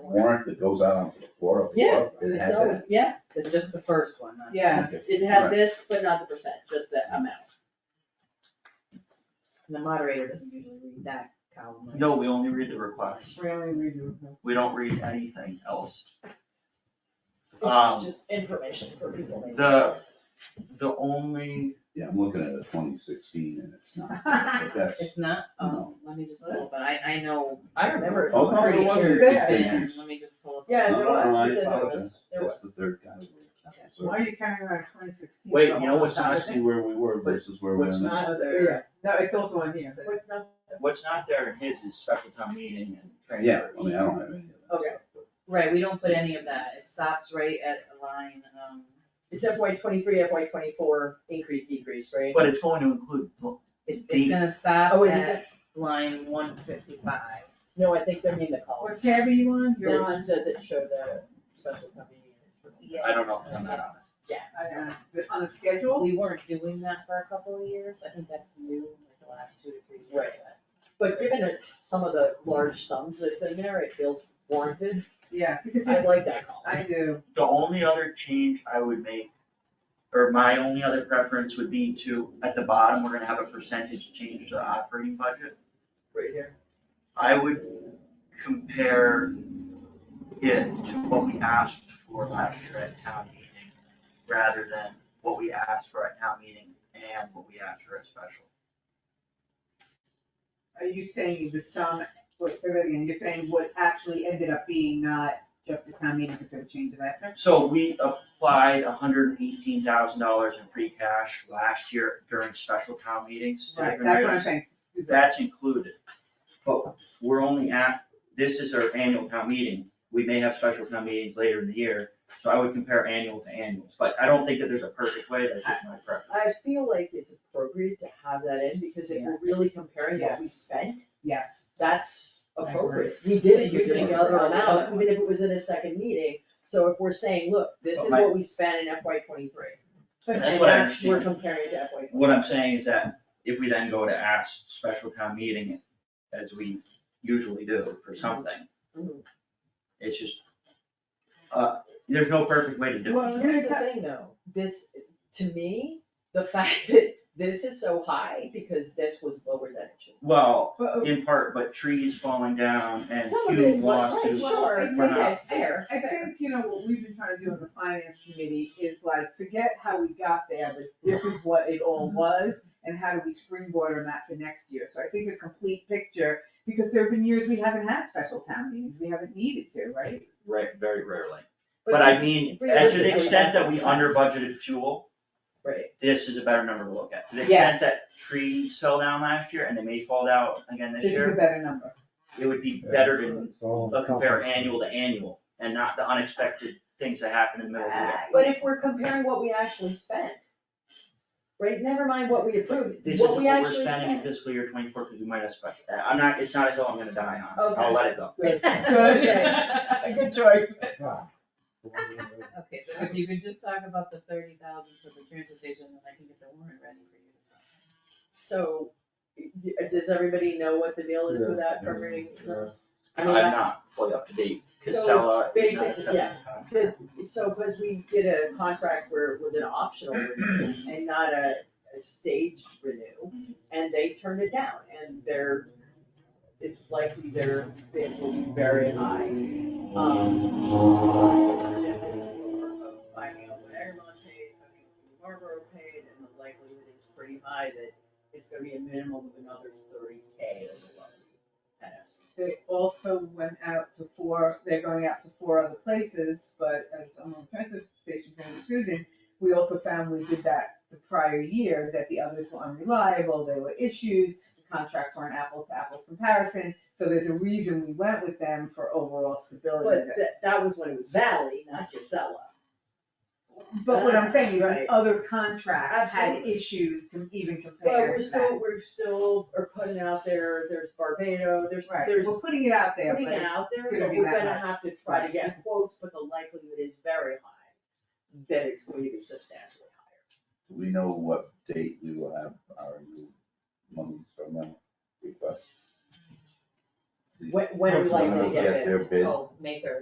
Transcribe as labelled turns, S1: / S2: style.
S1: warrant that goes out onto the floor of the
S2: Yeah,
S1: club and
S2: it's
S1: had
S2: always,
S1: that.
S2: yeah,
S3: It's Just the first one, not-
S2: yeah,
S1: Okay.
S2: it
S1: Right.
S2: had this, but not the percent, just the amount.
S3: And the moderator doesn't usually read that column. right?
S4: No, we only read the request. We don't read anything else. Um,
S5: It's just information for people. maybe.
S4: the- Um, The only,
S1: Yeah, I'm looking at a twenty sixteen and it's not, but that's,
S3: It's not, oh,
S1: No.
S3: let me just pull, but I, I know,
S5: I remember. it.
S1: Oh,
S5: I'm
S1: no,
S5: pretty
S1: it wasn't
S5: sure.
S1: there.
S5: Yeah.
S3: yeah, let me just pull up.
S5: Yeah,
S1: no,
S5: there
S1: no, no, I
S5: was, it said there
S1: apologize,
S5: was, there
S1: that's
S5: was.
S1: the third category.
S3: Okay.
S1: So-
S2: are you carrying around twenty sixteen?
S1: Wait, you know what's not, see where we were versus where we're
S4: what's
S1: now.
S4: not there,
S2: no, it's also on here,
S5: What's not,
S4: what's not there in his is special town meeting and
S1: Yeah,
S4: transfers.
S1: I mean, I don't have any of that
S5: Okay.
S1: stuff. but-
S3: Right, we don't put any of that, it stops right at a line, um,
S5: it's FY twenty-three, FY twenty-four, increase, decrease, right?
S4: But it's going to include,
S3: it's, it's
S4: D.
S3: gonna stop
S5: Oh, is it
S3: at line one fifty-five.
S5: No, I think they're in the column.
S2: tab are you on?
S5: It's- Does it show the special company?
S4: I don't know if I'm not on
S2: On uh, the schedule?
S3: We weren't doing that for a couple of years, I think that's new, like the last two to three years.
S5: Right. But given it's some of the large sums that's in there, it feels warranted.
S2: Yeah, because
S5: I like that column.
S2: I do.
S4: the only other change I would make, or my only other preference would be to, at the bottom, we're gonna have a percentage change to the operating budget.
S5: Right here.
S4: I would compare it to what we asked for last year at town meeting, rather than what we asked for at town meeting and what we asked for at special.
S2: Are you saying the sum, wait, say that again, you're saying what actually ended up being not just the town meeting because of a change of that?
S4: So we applied hundred and eighteen thousand dollars in free cash last year during special town meetings. to
S2: Right,
S4: different
S2: that's what I'm
S4: items.
S2: saying.
S4: That's included, but we're only at, this is our annual town meeting, we may have special town meetings later in the year, so I would compare annual to annual, but I don't think that there's a perfect way, that's just my preference.
S5: I feel like it's appropriate to have that in because if we're really comparing what we
S2: Yes.
S5: spent,
S2: Yes,
S5: that's
S2: I agree.
S5: appropriate. We did it,
S3: You're
S5: you're getting
S3: getting
S5: another
S3: all the
S5: amount,
S3: other
S5: even if it
S3: ones.
S5: was in a second meeting. So if we're saying, look, this
S4: But
S5: is
S4: my-
S5: what we spent in FY twenty-three.
S4: That's what I
S5: we're
S4: understand.
S5: comparing to FY
S4: What I'm saying is that if we then go to ask special town meeting, as we usually do for something,
S5: Mhm.
S4: it's just, uh, there's no perfect way to do
S5: Well,
S4: it.
S5: here's the thing though, this, to me, the fact that this is so high because this was lower than it should.
S4: Well,
S2: but,
S4: in part, but trees falling down and
S5: Some of
S4: huge
S5: it was- right,
S4: lawsuits,
S5: sure,
S4: we're
S2: I
S4: not-
S5: okay, fair,
S2: I
S5: fair.
S2: think, you know, what we've been trying to do in the finance committee is like, forget how we got there, but this is what it all was, and how do we springboard on that for next year? So I think a complete picture, because there have been years we haven't had special town meetings, we haven't needed to, right?
S4: Right, very rarely. But I mean,
S5: But
S4: as to
S5: realistically,
S4: the extent that we
S5: that's not-
S4: under budgeted fuel,
S5: Right,
S4: this is a better number to look at. To the extent that trees fell down last year and they may fall down again this
S2: This is a
S4: year,
S2: better number.
S4: it would be better to uh, compare annual to annual and not the unexpected things that happen in the middle of the year.
S5: Uh, but if we're comparing what we actually spent, right, never mind what we approved,
S4: This is
S5: what
S4: what
S5: we
S4: we're
S5: actually
S4: spending in
S5: spent.
S4: fiscal year twenty-four, cause we might have special, I'm not, it's not a hill I'm gonna die on,
S5: Okay.
S4: I'll let it go.
S2: Good. Good choice.
S3: Okay, so if you could just talk about the thirty thousand for the transfer station, then I can get the warrant ready for you to sign.
S5: So, y- does everybody know what the deal is with that
S1: Yeah.
S5: permitting?
S1: Yeah.
S5: I mean,
S4: I'm
S5: I-
S4: not fully up to date,
S5: So,
S4: Casella is not
S5: basically, yeah.
S4: accepting
S5: Cause, so, because we did a contract where it was an optional renew and not a, a staged renew, and they turned it down, and they're, it's likely their bid will be very high. Um, so it's in favor of Finding out what Egremont paid, finding out what Marlboro paid, and the likelihood is pretty high that it's gonna be a minimum of another thirty K of the levy. That estimate.
S2: They also went out to four, they're going out to four other places, but as I'm on transfer station friend with Susan, we also found we did that the prior year, that the others were unreliable, there were issues, the contracts weren't apples to apples comparison, so there's a reason we went with them for overall
S5: But
S2: stability.
S5: that, that was when it was Valley, not Casella.
S2: But what I'm saying is,
S5: Right.
S2: other contracts had
S5: Absolutely.
S2: issues com- even
S5: But
S2: compared
S5: we're
S2: to that.
S5: still, we're still, are putting out there, there's Barbado, there's,
S2: Right,
S5: there's
S2: we're putting it out there,
S5: putting
S2: but
S5: it out there,
S2: gonna
S5: but
S2: be
S5: we're
S2: that
S5: gonna
S2: much.
S5: have to try to
S2: Right.
S5: get quotes, but the likelihood is very high that it's going to be substantially higher.
S1: Do we know what date we will have our new monies from them request? These-
S5: When, when are we
S3: Hopefully
S5: likely to
S3: we'll
S5: get
S1: Their
S5: bids?
S1: bid.
S3: Oh, May third.